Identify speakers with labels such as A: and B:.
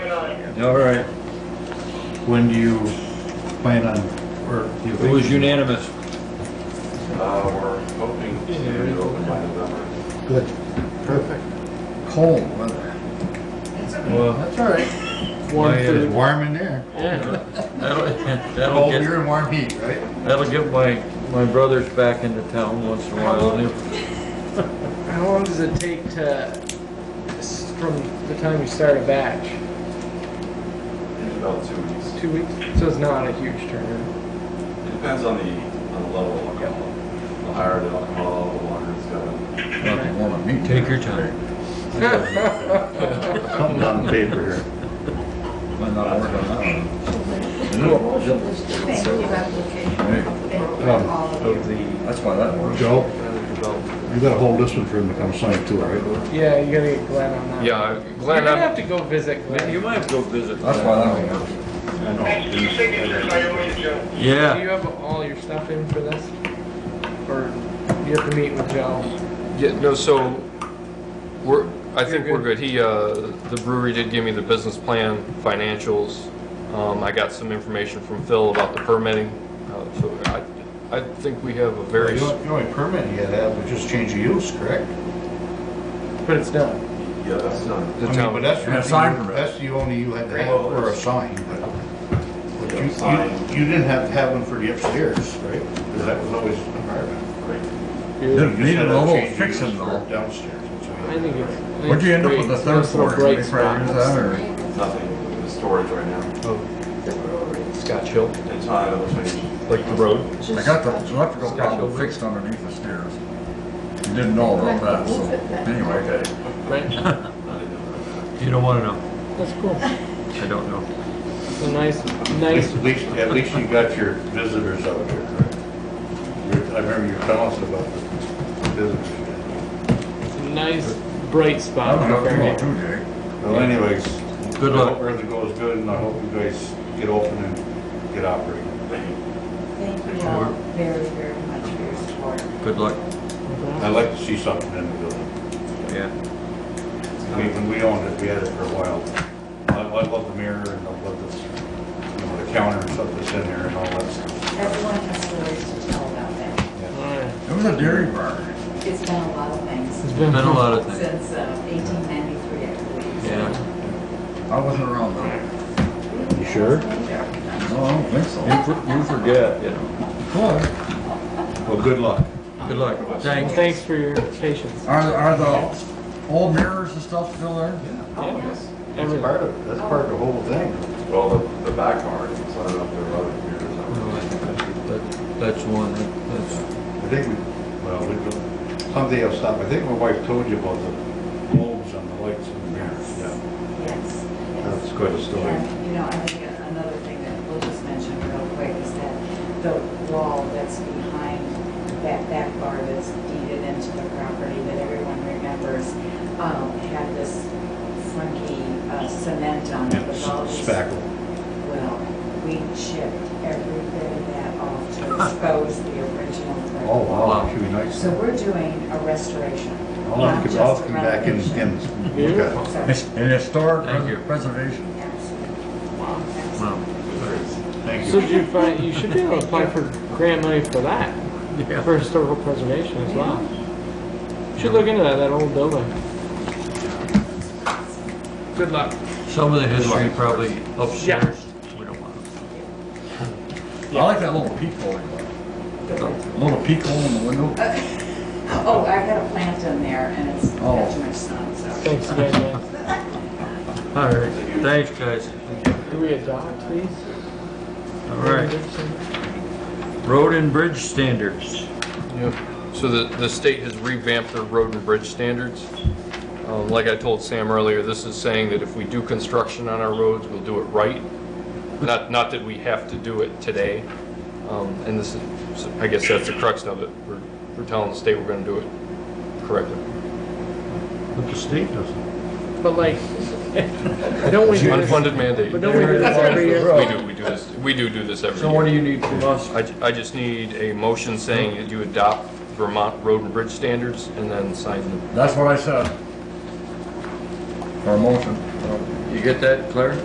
A: All right,
B: When do you plan on, or? do you
A: it was
B: think-
A: unanimous.
C: Uh, we're hoping to open by November.
B: Good, perfect. Cold weather.
A: Well,
B: That's all right.
A: Warm
B: Yeah, uh, It's
A: food.
B: warm in there.
A: yeah, that'll, that'll
B: Cold
A: get,
B: beer and warm heat, right?
A: that'll get my, my brothers back into town once in a while. and if-
D: How long does it take to, s- from the time you start a batch?
C: It's about two weeks.
D: Two weeks? So it's not a huge turnaround.
C: It depends on the, on the level of alcohol. The higher the alcohol, the longer it's going.
A: Nothing wrong with me. Take your time.
B: Something on paper here.
A: Might not work on that one.
E: Thank you, application.
B: Um,
E: All of you.
C: Of the.
A: That's why that works.
B: Joe, you gotta hold this one for him to come sign too, all right?
D: Yeah, you gotta get Glenn on that.
F: Yeah,
D: You're
F: Glenn,
D: gonna have
F: I'm,
D: to go visit
A: You
D: Glenn.
A: might have to go visit.
B: That's why that one works.
C: I know.
D: Do
A: Yeah,
D: you have all your stuff in for this? Or you have to meet with Joe?
F: yeah, no, so, we're, I think
D: You're
F: we're
D: good.
F: good. He, uh, the brewery did give me the business plan, financials. Um, I got some information from Phil about the permitting, uh, so I, I think we have a very,
B: The
F: s-
B: only- the only permit you gotta have is just change of use, correct?
D: But it's done.
C: Yeah, that's
B: I
F: the
C: done.
B: mean, but
F: town,
B: that's
A: And a
B: something
A: sign
B: you-
A: permit.
B: That's the only you had to have for a sign, but. but you-
C: Sign.
B: you, you didn't have to have one for the upstairs, right? Because that was always an apartment.
C: Great.
D: Yeah.
B: You just
A: needed
B: had
A: a
B: to
A: little
B: change of
A: fixing
B: use for
A: though.
B: Downstairs. that's all.
D: I think it's. I think
A: What'd you
D: it's
A: end up
D: great.
A: with the third
D: It's a
A: floor?
D: Great
A: Did they
D: spot.
A: figure that or-
C: Nothing, the storage right now.
F: Scotch Hill,
C: It's not, it'll change.
F: like the road.
A: I got the electrical problem fixed underneath the stairs. You didn't know about that, so anyway.
D: Right,
A: You don't wanna know.
D: that's cool.
A: I don't know.
D: It's a nice, nice,
B: At least, at least you got your visitors out there, correct? You- I remember you were telling us about the visitors.
D: it's a nice bright
A: I
D: spot.
A: don't know,
D: right
A: you
D: there.
A: all too, Jay.
B: Well anyways,
A: Good
B: I
A: luck.
B: hope Everything goes good and I hope you guys get open and get operating.
E: Thank you all very, very much for your support.
A: Good luck.
B: I like to see something in the building.
A: Yeah.
B: I mean, when we owned it, we had it for a while. I, I love the mirror and I love this, you know, the counter and stuff that's in there and all that stuff.
E: Everyone has stories to tell about that.
D: Alright,
A: It was a dairy bar.
E: It's been a lot of things
D: It's been.
A: Been a lot of things.
E: since uh, 1893, I believe.
A: Yeah. I wasn't around though.
B: You sure?
A: No, I don't think so. You forget, you know.
B: Well, good luck.
A: Good luck.
D: Well,
A: Thanks.
D: Thanks for your patience.
A: Are, are the old mirrors and stuff still there?
C: Yes.
D: Everything.
B: Part of, that's part of the whole thing.
C: Well, the, the back part, so I don't know if there are other computers. out there.
A: That, that's one, that's.
B: I think we, well, we, go- someday I'll stop. I think my wife told you about the bulbs on the lights in the mirror. Yeah,
E: Yes. yes.
B: that's quite a story.
E: And, you know, I think another thing that we'll just mention real quick is that the wall that's behind that back bar that's deeded into the property that everyone remembers, um, had this funky uh, cement on it with all these.
B: Spackle.
E: Well, we chipped every bit of that off to expose the original. brick
B: Oh, wow,
A: Wow.
B: should be nice.
E: So we're doing a restoration.
B: I'll have to
E: not
B: come- I'll
E: just a
B: come back and,
E: renovation.
B: and look at it.
A: It's an historic
F: Thank you.
A: preservation.
E: Absolutely.
A: Wow.
B: Thank
D: So
B: you.
D: did you find, you should be able to apply for grant money for that, for historical preservation as well. Should look into that, that old building. Good luck.
A: Some of the history probably upstairs. We don't want it. I like that little peephole. Little peephole in the window.
E: Oh, I've got a plant in there and it's
A: Oh.
E: got too much sun, so.
D: Thanks again, guys.
A: All right, thanks, guys.
D: Do we adopt these?
A: All right, road and bridge standards.
F: So the, the state has revamped their road and bridge standards. Um, Like I told Sam earlier, this is saying that if we do construction on our roads, we'll do it right. Not, not that we have to do it today. Um, And this is, I guess that's the crux of it. We're, we're telling the state we're gonna do it correctly.
B: But the state doesn't.
D: But like, don't we do this,
F: Unfunded mandate.
D: but don't we do this every year?
F: We do, we do this, we do do this every year.
A: So what do you need from us?
F: I, ju- I just need a motion saying that you adopt Vermont road and bridge standards and then sign them.
A: That's what I said. For a motion. You get that, Claire?